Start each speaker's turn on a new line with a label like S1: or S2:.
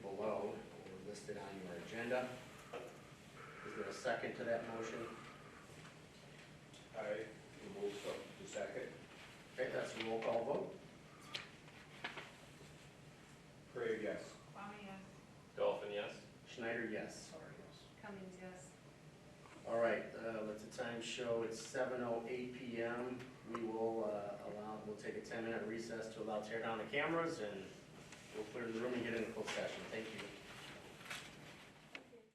S1: listed on your agenda. Is there a second to that motion?
S2: I move so. The second.
S1: Okay, that's a roll call vote.
S2: Craig, yes.
S3: Kwame, yes.
S4: Dolphin, yes.
S1: Schneider, yes.
S2: Sorry, yes.
S3: Cummings, yes.
S1: All right, uh, let the time show, it's seven oh eight PM. We will uh, allow, we'll take a ten-minute recess to allow tear down the cameras, and we'll clear the room and get into closed session. Thank you.